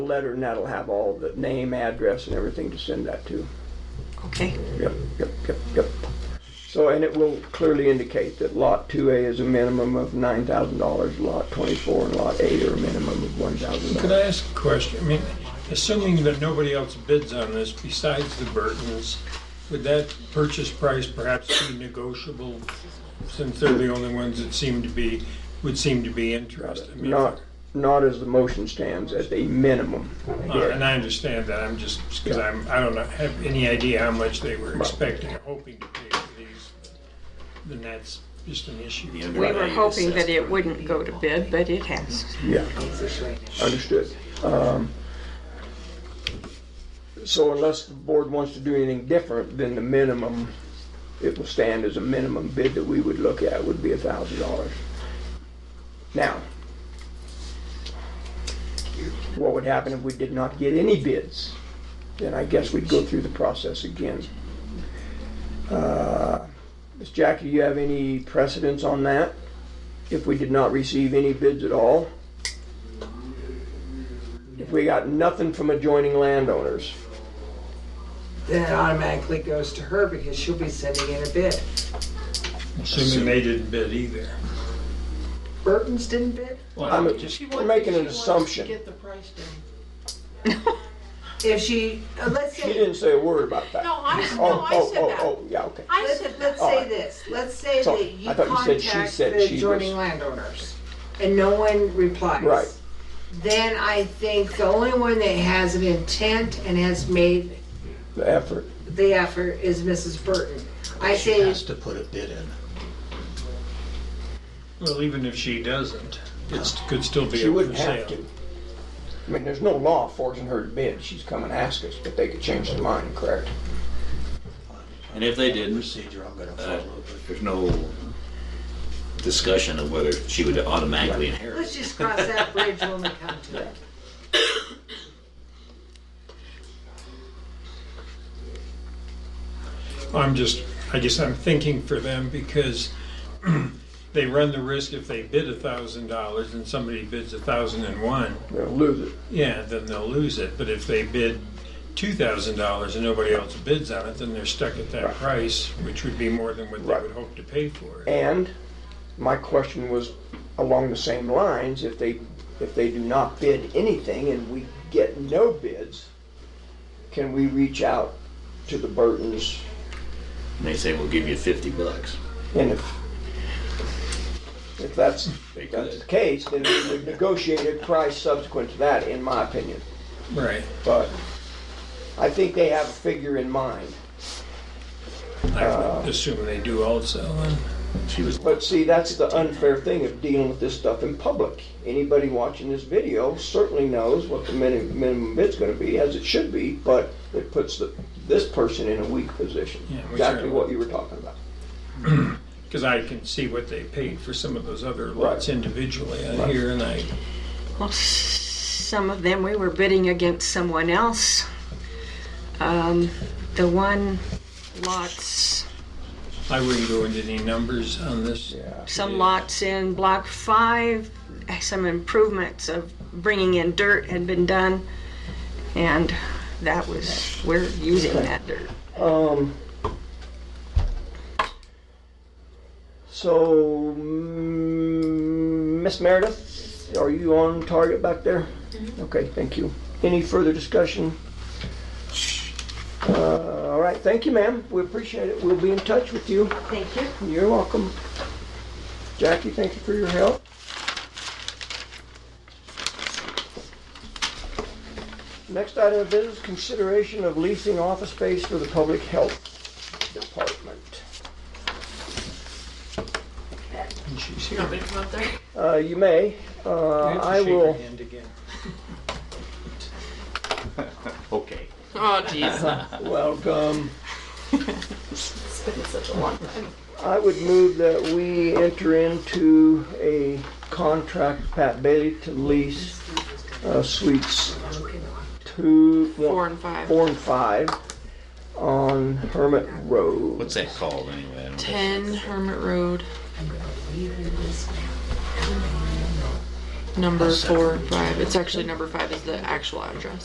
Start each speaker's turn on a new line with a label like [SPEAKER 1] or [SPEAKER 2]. [SPEAKER 1] letter and that'll have all the name, address and everything to send that to.
[SPEAKER 2] Okay,
[SPEAKER 1] Yep, yep, yep, yep. So, and it will clearly indicate that lot two A is a minimum of nine thousand dollars, lot twenty-four and lot eight are a minimum of one thousand
[SPEAKER 3] Could
[SPEAKER 1] dollars.
[SPEAKER 3] I ask a question? I mean, assuming that nobody else bids on this besides the Burtons, would that purchase price perhaps be negotiable? Since they're the only ones that seem to be, would seem to be interested. I mean,
[SPEAKER 1] Not, not as the motion stands, at the minimum.
[SPEAKER 3] uh, And I understand that, I'm just, because I'm, I don't know- have any idea how much they were expecting, or hoping to pay for these. Then that's just an issue.
[SPEAKER 2] we were hoping that it wouldn't go to bid, but it has.
[SPEAKER 1] Yeah, understood. Um, So unless the board wants to do anything different, then the minimum, it will stand as a minimum bid that we would look at would be a thousand dollars. Now, what would happen if we did not get any bids? Then I guess we'd go through the process again. Uh, Ms. Jackie, do you have any precedence on that? If we did not receive any bids at all? If we got nothing from adjoining landowners,
[SPEAKER 4] Then it automatically goes to her because she'll be sending in a bid.
[SPEAKER 3] Assuming they didn't bid either.
[SPEAKER 4] Burton's didn't bid?
[SPEAKER 1] I'm we're making an assumption. She
[SPEAKER 5] the price down.
[SPEAKER 4] If she, uh, let's say,
[SPEAKER 1] didn't say a word about that.
[SPEAKER 5] No, I, no,
[SPEAKER 1] Oh,
[SPEAKER 5] I
[SPEAKER 1] oh,
[SPEAKER 5] said
[SPEAKER 1] oh,
[SPEAKER 5] that.
[SPEAKER 1] oh, yeah, okay.
[SPEAKER 5] I
[SPEAKER 4] let's,
[SPEAKER 5] said that.
[SPEAKER 4] let's say this, let's say
[SPEAKER 1] Sorry,
[SPEAKER 4] that you
[SPEAKER 1] I thought you said she
[SPEAKER 4] contact
[SPEAKER 1] said she
[SPEAKER 4] the
[SPEAKER 1] was-
[SPEAKER 4] adjoining landowners and no one replies.
[SPEAKER 1] Right.
[SPEAKER 4] Then I think the only one that has an intent and has made
[SPEAKER 1] The effort.
[SPEAKER 4] the effort is Mrs. Burton. I
[SPEAKER 6] She
[SPEAKER 4] say,
[SPEAKER 6] has to put a bid in.
[SPEAKER 3] Well, even if she doesn't, it could still be
[SPEAKER 1] She
[SPEAKER 3] up for
[SPEAKER 1] wouldn't have
[SPEAKER 3] sale.
[SPEAKER 1] to. I mean, there's no law forcing her to bid. She's come and asked us, but they could change their mind, correct?
[SPEAKER 7] And if they didn't,
[SPEAKER 6] Procedure I'm gonna
[SPEAKER 7] uh,
[SPEAKER 6] follow.
[SPEAKER 7] there's no discussion of whether she would automatically inherit.
[SPEAKER 4] let's just cross that bridge when we come to it.
[SPEAKER 3] I'm just, I guess I'm thinking for them because they run the risk if they bid a thousand dollars and somebody bids a thousand and one,
[SPEAKER 1] They'll lose it.
[SPEAKER 3] yeah, then they'll lose it. But if they bid two thousand dollars and nobody else bids on it, then they're stuck at that price, which would be more than what they
[SPEAKER 1] Right.
[SPEAKER 3] would hope to pay for it.
[SPEAKER 1] And my question was along the same lines, if they, if they do not bid anything and we get no bids, can we reach out to the Burtons
[SPEAKER 7] And they say, we'll give you 50 bucks.
[SPEAKER 1] And if, if that's,
[SPEAKER 7] They
[SPEAKER 1] if that's the
[SPEAKER 7] could.
[SPEAKER 1] case, then we would negotiate a price subsequent to that, in my opinion.
[SPEAKER 3] Right.
[SPEAKER 1] But I think they have a figure in mind.
[SPEAKER 3] I would assume they do also. and-
[SPEAKER 7] She was,
[SPEAKER 1] But see, that's the unfair thing of dealing with this stuff in public. Anybody watching this video certainly knows what the minimum, minimum bid's gonna be, as it should be, but it puts the, this person in a weak position.
[SPEAKER 3] Yeah, we
[SPEAKER 1] Exactly
[SPEAKER 3] certainly-
[SPEAKER 1] what you were talking about.
[SPEAKER 3] Because I can see what they paid for some of those other lots
[SPEAKER 1] Right.
[SPEAKER 3] individually out here, and I,
[SPEAKER 2] Well, s- some of them, we were bidding against someone else. Um, The one lots,
[SPEAKER 3] I wouldn't go into any numbers on this.
[SPEAKER 1] Yeah.
[SPEAKER 2] some lots in Block 5, some improvements of bringing in dirt had been done, and that was, we're using that dirt.
[SPEAKER 1] Um, so, mm, Miss Meredith, are you on target back there? Okay, thank you. Any further discussion? Uh, all right, thank you, ma'am. We appreciate it. We'll be in touch with you.
[SPEAKER 4] Thank you.
[SPEAKER 1] You're welcome. Jackie, thank you for your help. Next item of business, consideration of leasing office space for the Public Health Department.
[SPEAKER 3] And she's here.
[SPEAKER 1] Uh, you may, uh,
[SPEAKER 3] You have to
[SPEAKER 1] I
[SPEAKER 3] shake her
[SPEAKER 1] will,
[SPEAKER 3] hand again.
[SPEAKER 7] okay.
[SPEAKER 5] Oh, jeez.
[SPEAKER 1] welcome.
[SPEAKER 5] It's been such a long time.
[SPEAKER 1] I would move that we enter into a contract with Pat Bailey to lease uh, suites two,
[SPEAKER 5] Four and five.
[SPEAKER 1] four and five on Hermit Road.
[SPEAKER 7] What's that called anyway? I don't know.
[SPEAKER 5] Ten Hermit Road. number four, five. It's actually number five is the actual address.